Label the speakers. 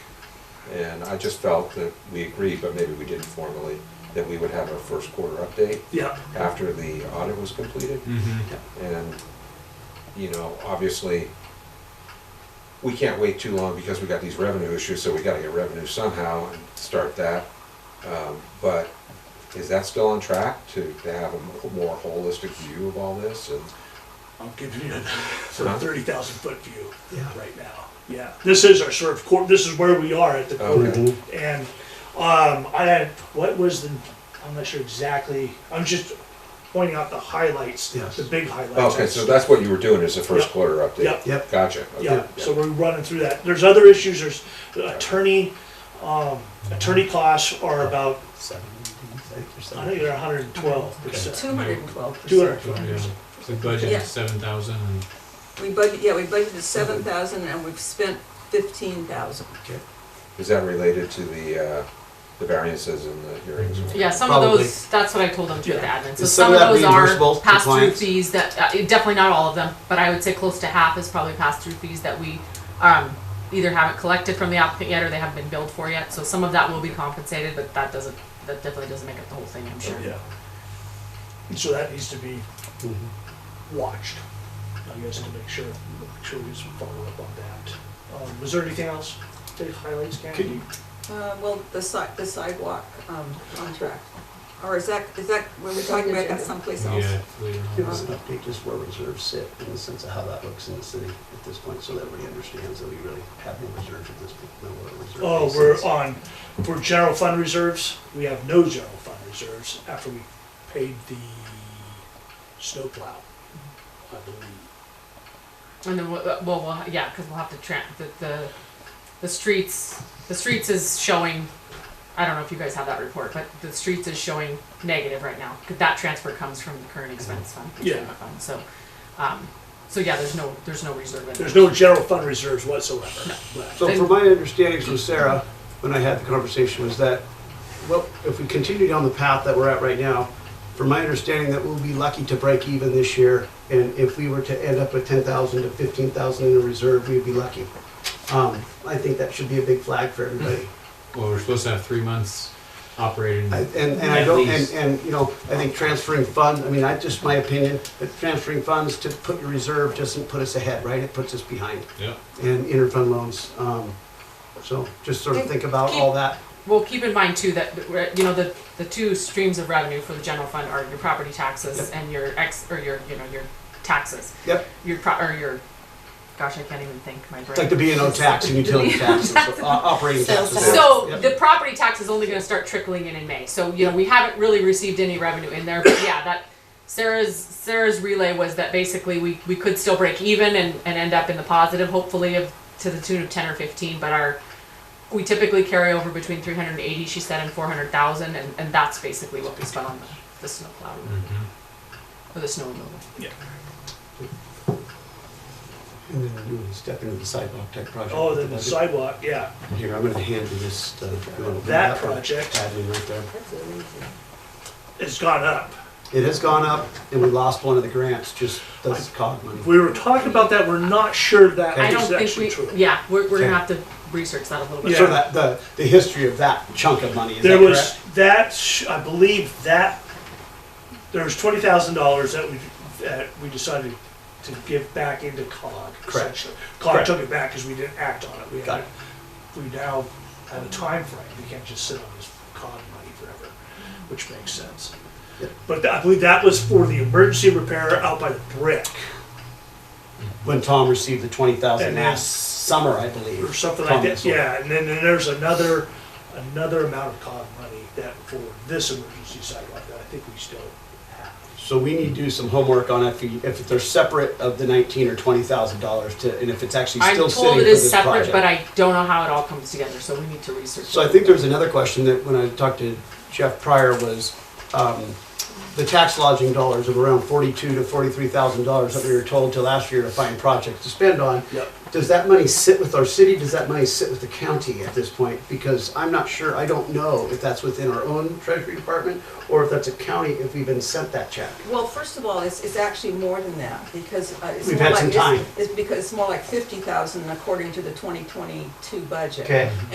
Speaker 1: And I just felt that we agreed, but maybe we didn't formally, that we would have our first quarter update
Speaker 2: Yeah.
Speaker 1: after the audit was completed. And, you know, obviously, we can't wait too long because we got these revenue issues, so we gotta get revenue somehow and start that. Um, But is that still on track to, to have a more holistic view of all this and?
Speaker 2: I'm giving you a sort
Speaker 1: Huh?
Speaker 2: of thirty thousand foot view
Speaker 3: Yeah.
Speaker 2: right now. Yeah, this is our sort of core, this is where we are at the
Speaker 1: Okay.
Speaker 2: core. And, um, I had, what was the, I'm not sure exactly, I'm just pointing out the highlights,
Speaker 3: Yes.
Speaker 2: the big highlights.
Speaker 1: Okay, so that's what you were doing is the first
Speaker 2: Yep.
Speaker 1: quarter update?
Speaker 2: Yep.
Speaker 3: Yep.
Speaker 1: Gotcha. okay,
Speaker 2: Yeah, so we're running through that. There's other issues, there's attorney, um, attorney costs are about, I think they're hundred and twelve percent.
Speaker 4: Two hundred and twelve percent.
Speaker 2: Two hundred and twelve percent.
Speaker 5: The budget
Speaker 4: Yeah.
Speaker 5: is seven thousand and
Speaker 4: We budget, yeah, we budgeted seven thousand and we've spent fifteen thousand.
Speaker 1: Is that related to the, uh, the variances in the hearings?
Speaker 6: Yeah, some of
Speaker 3: Probably.
Speaker 6: those, that's what I told them to do with the admin. So
Speaker 3: Is
Speaker 6: some,
Speaker 3: some of that
Speaker 6: of those are
Speaker 3: reimbursable to
Speaker 6: pass through
Speaker 3: clients?
Speaker 6: fees that, uh, definitely not all of them, but I would say close to half is probably pass through fees that we um, either haven't collected from the applicant yet or they haven't been billed for yet. So some of that will be compensated, but that doesn't, that definitely doesn't make up the whole thing, I'm sure.
Speaker 2: Yeah. So that needs to be watched, I guess, to make sure, make sure we just follow up on that. Um, was there anything else, big highlights,
Speaker 5: Could
Speaker 2: Candy?
Speaker 5: you-
Speaker 4: Uh, well, the si- the sidewalk, um, contract. Or is that, is that, were we talking about that someplace else?
Speaker 5: yeah, it's later
Speaker 3: Give
Speaker 5: on.
Speaker 3: us an update just where reserves sit in the sense of how that looks in the city at this point, so that everybody understands that we really have no reserves at this point, no what a reserve.
Speaker 2: Oh,
Speaker 3: base
Speaker 2: we're
Speaker 3: is.
Speaker 2: on, for general fund reserves, we have no general fund reserves after we paid the snowplow, I believe.
Speaker 6: And then, we'll- uh, well, we'll, yeah, because we'll have to tran the, the, the streets, the streets is showing, I don't know if you guys have that report, but the streets is showing negative right now. 'cause That transfer comes from the current expense fund. the
Speaker 2: Yeah.
Speaker 6: general fund. So, um, so yeah, there's no, there's no reserve in there.
Speaker 2: There's no general fund reserves whatsoever left.
Speaker 3: So from my understanding from Sarah, when I had the conversation, was that, well, if we continue down the path that we're at right now, from my understanding that we'll be lucky to break even this year, and if we were to end up with ten thousand to fifteen thousand in a reserve, we'd be lucky. Um, I think that should be a big flag for everybody.
Speaker 5: Well, we're supposed to have three months operating.
Speaker 3: I- And, and I
Speaker 5: At
Speaker 3: don't, and,
Speaker 5: least.
Speaker 3: and, you know, I think transferring funds, I mean, I, just my opinion, but transferring funds to put your reserve doesn't put us ahead, right? It puts us behind.
Speaker 5: Yep.
Speaker 3: And interfund loans, um, so just sort of think about all that.
Speaker 6: Well, keep in mind too that we're- you know the the two streams of revenue for the general fund are your property taxes
Speaker 3: Yep.
Speaker 6: and your ex or your you know your taxes.
Speaker 3: Yep,
Speaker 6: Your pro- or your, gosh, I can't even think. My brain.
Speaker 3: it's like the B and O tax and utility tax, and so- uh, operating
Speaker 4: Sales
Speaker 3: taxes.
Speaker 4: tax.
Speaker 6: So
Speaker 3: Yep.
Speaker 6: the property tax is only going to start trickling in in May. So you know we haven't really received any revenue in there, but yeah, that Sarah's Sarah's relay was that basically we, we could still break even and, and end up in the positive, hopefully of to the tune of ten or fifteen. But our we typically carry over between three hundred and eighty, she said, and four hundred thousand, and and that's basically what we spent on the the snow plow
Speaker 5: Mm-hmm.
Speaker 6: or the snow removal.
Speaker 3: And then do a step into the sidewalk type project.
Speaker 2: Oh,
Speaker 3: with
Speaker 2: the
Speaker 3: budget.
Speaker 2: sidewalk, yeah,
Speaker 3: Here, I'm gonna hand you this, uh, little-
Speaker 2: that project
Speaker 3: Admin right there.
Speaker 2: has gone up.
Speaker 3: It has gone up, and we lost one of the grants, just those cog money.
Speaker 2: We were talking about that, we're not sure that
Speaker 6: I
Speaker 2: is
Speaker 6: don't think
Speaker 2: actually
Speaker 6: we
Speaker 2: true.
Speaker 6: yeah we're, we're gonna
Speaker 3: Okay.
Speaker 6: have to research that a little bit.
Speaker 2: Yeah.
Speaker 3: So that, the, the history of that chunk of money, is
Speaker 2: There
Speaker 3: that
Speaker 2: was,
Speaker 3: correct?
Speaker 2: that, sh- I believe that, there was twenty thousand dollars that we, that we decided to give back into COG.
Speaker 3: Correct.
Speaker 2: essentially. COG
Speaker 3: Correct.
Speaker 2: took it back because we didn't act on it. We
Speaker 3: Got
Speaker 2: had, we now have a time frame. We can't just sit on this COG money forever, which makes sense.
Speaker 3: Yep.
Speaker 2: But I believe that was for the emergency repair out by the brick
Speaker 3: When Tom received the twenty thousand
Speaker 2: And then-
Speaker 3: last summer, I believe.
Speaker 2: or something
Speaker 3: Tom
Speaker 2: like that.
Speaker 3: was on.
Speaker 2: Yeah, and then, then there's another, another amount of COG money that for this emergency sidewalk that I think we still have.
Speaker 3: So we need to do some homework on if, you- if they're separate of the nineteen or twenty thousand dollars to, and if it's actually
Speaker 6: I'm
Speaker 3: still
Speaker 6: told
Speaker 3: sitting for
Speaker 6: it is
Speaker 3: this
Speaker 6: separate, but
Speaker 3: project.
Speaker 6: I don't know how it all comes together, so we need to research.
Speaker 3: So I
Speaker 6: it.
Speaker 3: think there was another question that when I talked to Jeff Pryor was, um, the tax lodging dollars of around forty-two to forty-three thousand dollars that we were told to last year to find projects to spend on.
Speaker 2: Yep.
Speaker 3: Does that money sit with our city? Does that money sit with the county at this point? Because I'm not sure, I don't know if that's within our own treasury department or if that's a county, if we've been sent that check.
Speaker 4: Well, first of all, it's, it's actually more than that because uh, it's
Speaker 3: We've
Speaker 4: more
Speaker 3: had
Speaker 4: like,
Speaker 3: some
Speaker 4: it's-
Speaker 3: time.
Speaker 4: It's because it's more like fifty thousand according to the twenty twenty-two budget.